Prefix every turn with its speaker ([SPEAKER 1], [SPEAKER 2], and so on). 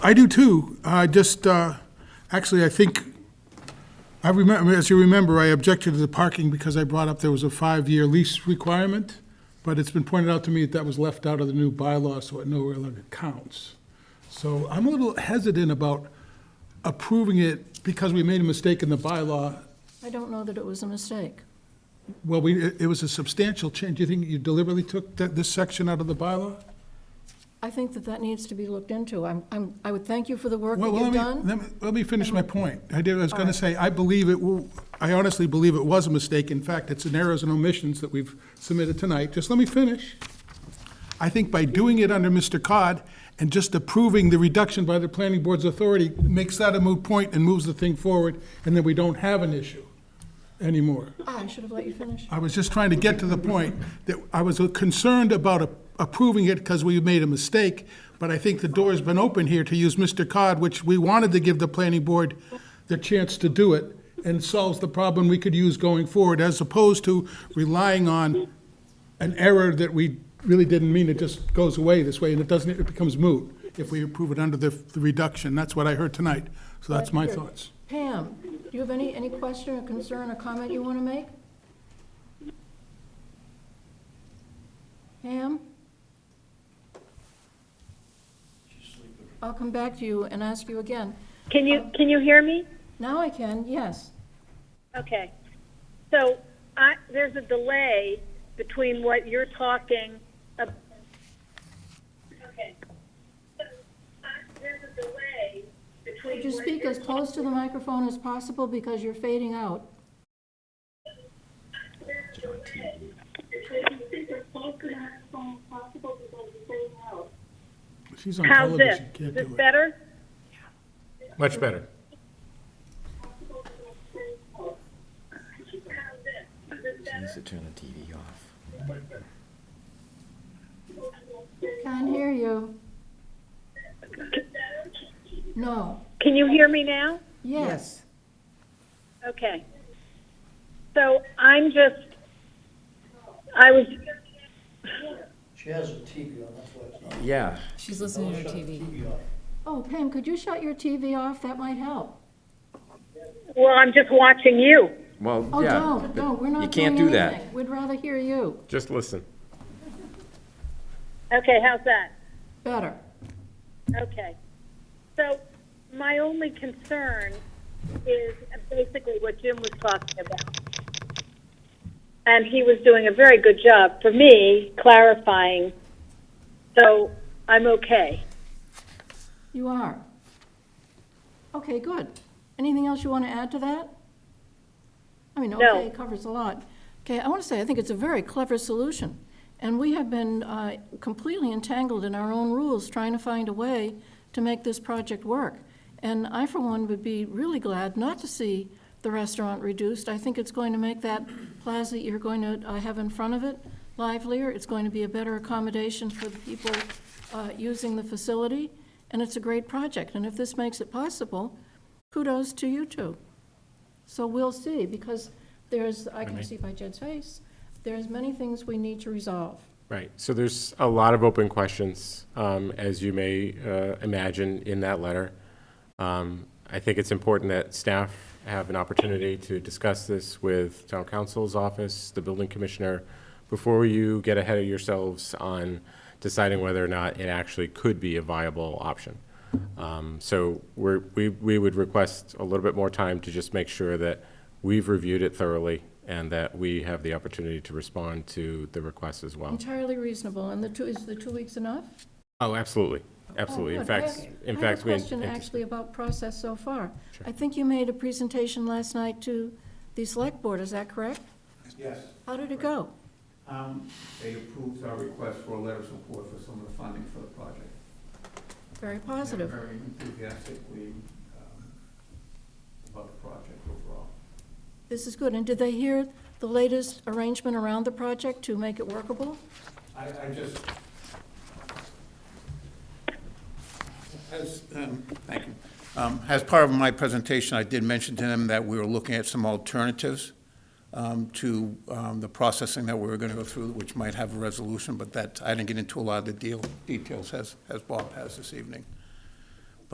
[SPEAKER 1] I do too. I just, uh, actually, I think, I remember, as you remember, I objected to the parking because I brought up there was a five-year lease requirement, but it's been pointed out to me that that was left out of the new bylaw, so it no longer counts. So I'm a little hesitant about approving it because we made a mistake in the bylaw.
[SPEAKER 2] I don't know that it was a mistake.
[SPEAKER 1] Well, we, it it was a substantial change. Do you think you deliberately took that, this section out of the bylaw?
[SPEAKER 2] I think that that needs to be looked into. I'm, I'm, I would thank you for the work
[SPEAKER 1] Well,
[SPEAKER 2] that
[SPEAKER 1] well,
[SPEAKER 2] you've
[SPEAKER 1] let me-
[SPEAKER 2] done.
[SPEAKER 1] Let me, let me finish my point. I did, I was gonna say, I believe it, w- I honestly believe it was a mistake. In fact, it's an errors and omissions that we've submitted tonight. Just let me finish. I think by doing it under Mr. Cod and just approving the reduction by the planning board's authority makes that a moot point and moves the thing forward, and then we don't have an issue anymore.
[SPEAKER 2] Ah, I should have let you finish.
[SPEAKER 1] I was just trying to get to the point that I was concerned about approving it because we made a mistake, but I think the door's been open here to use Mr. Cod, which we wanted to give the planning board the chance to do it, and solves the problem we could use going forward, as opposed to relying on an error that we really didn't mean, it just goes away this way, and it doesn't, it becomes moot if we approve it under the the reduction. That's what I heard tonight, so that's my thoughts.
[SPEAKER 2] Pam, do you have any, any question or concern or comment you want to make? Pam? I'll come back to you and ask you again.
[SPEAKER 3] Can you, can you hear me?
[SPEAKER 2] Now I can, yes.
[SPEAKER 3] Okay. So I, there's a delay between what you're talking ab- Okay. So, I- there's a delay between
[SPEAKER 2] Could you
[SPEAKER 3] what
[SPEAKER 2] speak
[SPEAKER 3] you're-
[SPEAKER 2] as close to the microphone as possible because you're fading out?
[SPEAKER 3] there's a delay between- Could you speak as close to the microphone as possible because you're fading out?
[SPEAKER 1] She's on
[SPEAKER 3] How's this?
[SPEAKER 1] television,
[SPEAKER 3] Is
[SPEAKER 1] can't
[SPEAKER 3] this
[SPEAKER 1] do it.
[SPEAKER 3] better?
[SPEAKER 4] Much better.
[SPEAKER 5] needs to turn the TV off.
[SPEAKER 2] Can't hear you. No,
[SPEAKER 3] Can you hear me now?
[SPEAKER 2] yes.
[SPEAKER 3] Okay. So I'm just, I was,
[SPEAKER 6] She has a TV on, that's why it's not.
[SPEAKER 5] Yeah.
[SPEAKER 7] She's listening to her TV.
[SPEAKER 6] TV off.
[SPEAKER 2] Oh, Pam, could you shut your TV off? That might help.
[SPEAKER 3] well, I'm just watching you.
[SPEAKER 5] Well,
[SPEAKER 2] Oh,
[SPEAKER 5] yeah.
[SPEAKER 2] don't,
[SPEAKER 5] but
[SPEAKER 2] don't, we're not
[SPEAKER 5] You
[SPEAKER 2] doing
[SPEAKER 5] can't do that.
[SPEAKER 2] anything. We'd rather hear you.
[SPEAKER 4] Just listen.
[SPEAKER 3] Okay, how's that?
[SPEAKER 2] Better.
[SPEAKER 3] Okay. So my only concern is basically what Jim was talking about. And he was doing a very good job for me clarifying. So I'm okay.
[SPEAKER 2] You are. Okay, good. Anything else you want to add to that? I mean,
[SPEAKER 3] No.
[SPEAKER 2] okay, covers a lot. Okay, I want to say, I think it's a very clever solution. And we have been uh, completely entangled in our own rules, trying to find a way to make this project work. And I, for one, would be really glad not to see the restaurant reduced. I think it's going to make that plaza that you're going to uh, have in front of it livelier. It's going to be a better accommodation for the people uh, using the facility, and it's a great project. And if this makes it possible, kudos to you two. So we'll see, because there's, I can see by Jed's face, there's many things we need to resolve.
[SPEAKER 4] Right, so there's a lot of open questions, um, as you may uh, imagine, in that letter. Um, I think it's important that staff have an opportunity to discuss this with town council's office, the building commissioner, before you get ahead of yourselves on deciding whether or not it actually could be a viable option. Um, So we're, we, we would request a little bit more time to just make sure that we've reviewed it thoroughly and that we have the opportunity to respond to the request as well.
[SPEAKER 2] Entirely reasonable, and the two, is the two weeks enough?
[SPEAKER 4] Oh, absolutely, absolutely.
[SPEAKER 2] Oh,
[SPEAKER 4] In
[SPEAKER 2] good. I
[SPEAKER 4] fact,
[SPEAKER 2] have-
[SPEAKER 4] in fact, we.
[SPEAKER 2] I have a question
[SPEAKER 4] anticipate-
[SPEAKER 2] actually about process so far. I think you made a presentation last night to the select board, is that correct?
[SPEAKER 8] Yes,
[SPEAKER 2] How did it go?
[SPEAKER 8] um, they approved our request for a letter of support for some of the funding for the project.
[SPEAKER 2] Very
[SPEAKER 8] They're
[SPEAKER 2] positive.
[SPEAKER 8] Very enthusiastically, um, about the project overall.
[SPEAKER 2] This is good. And did they hear the latest arrangement around the project to make it workable?
[SPEAKER 8] I, I just, as, um, thank you. Um, As part of my presentation, I did mention to them that we were looking at some alternatives um, to um, the processing that we were going to go through, which might have a resolution, but that, I didn't get into a lot of the deal, details as, as Bob has this evening.